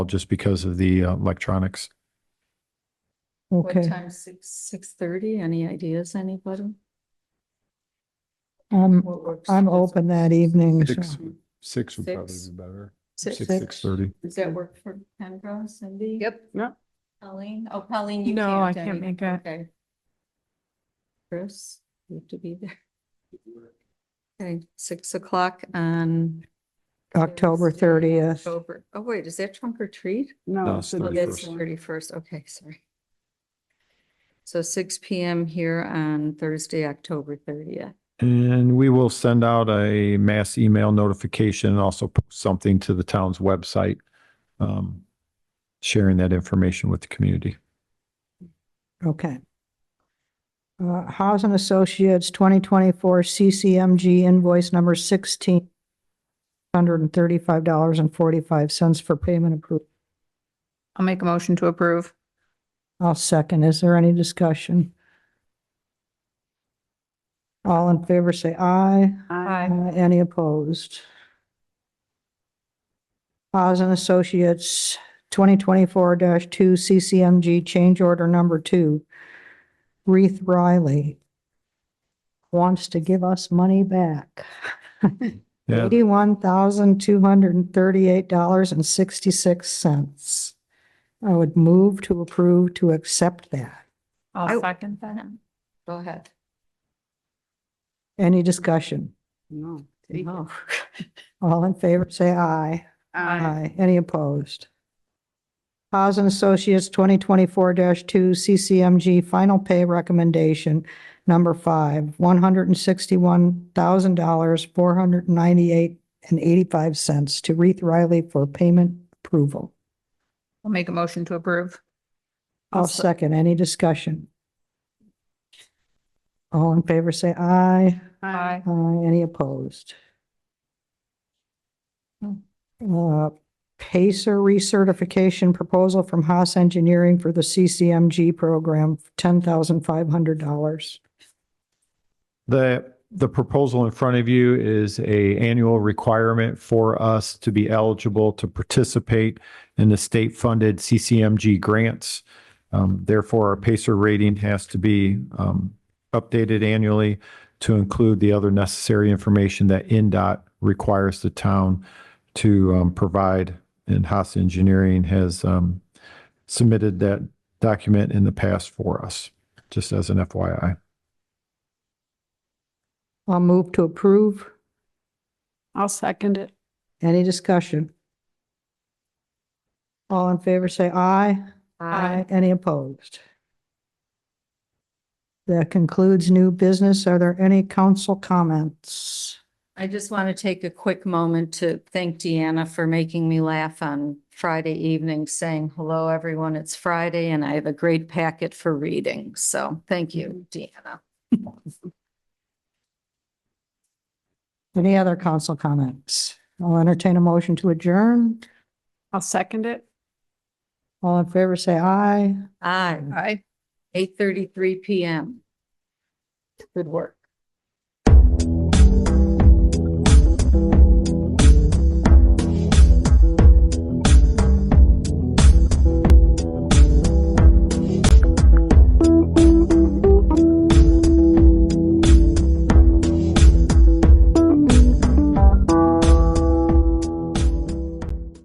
just because of the uh, electronics. What Okay, time, six, six thirty? Any ideas, anybody? I'm, What works? I'm open that evening. so- Six, six would probably Six. be better. Six- Six, Six. six thirty. Does that work for Kendra, Cindy? Yep. No. Colleen? Oh, Colleen, you can't. No, I can't Debbie. make it. Okay. Chris, you have to be there. Okay, six o'clock on. October Thursday, 30th. October, oh wait, is that trunk or treat? No, No, it's so Oh, That's 31st. thirty-first, okay, sorry. So six P M here on Thursday, October thirtieth. And we will send out a mass email notification and also post something to the town's website, um, sharing that information with the community. Okay. Uh, Housing Associates, twenty twenty-four CCMG invoice number sixteen, hundred and thirty-five dollars and forty-five cents for payment approved. I'll make a motion to approve. I'll second. Is there any discussion? All in favor, say aye. Aye. Uh, Any opposed? Haas and Associates, twenty twenty-four two CCMG change order number two. Reeve Riley wants to give us money back. Yeah, Eighty-one thousand, two hundred and thirty-eight dollars and sixty-six cents. I would move to approve to accept that. I- I'll second that. Go ahead. Any discussion? No. No. All in favor, say aye. Um, Aye. Aye. Any opposed? Haas and Associates, twenty twenty-four two, CCMG, final pay recommendation, number five, one hundred and sixty-one thousand dollars, four hundred and ninety-eight and eighty-five cents to Reith Riley for payment approval. I'll make a motion to approve. I'll second. Any discussion? All in favor, say aye. Aye. Uh, any opposed? Uh, Pacer recertification proposal from Haas Engineering for the CCMG program, ten thousand five hundred dollars. The, the proposal in front of you is a annual requirement for us to be eligible to participate in the state-funded CCMG grants. Um, Therefore, our PACER rating has to be um, updated annually to include the other necessary information that NDOT requires the town to um, provide. And Haas Engineering has um, submitted that document in the past for us, just as an FYI. I'll move to approve. I'll second it. Any discussion? All in favor, say aye. Aye. Any opposed? That concludes new business. Are there any council comments? I just want to take a quick moment to thank Deanna for making me laugh on Friday evening, saying, hello, everyone, it's Friday, and I have a great packet for reading. So thank you, Deanna. Any other council comments? I'll entertain a motion to adjourn. I'll second it. All in favor, say aye. Aye, Aye. eight thirty-three PM. Good work.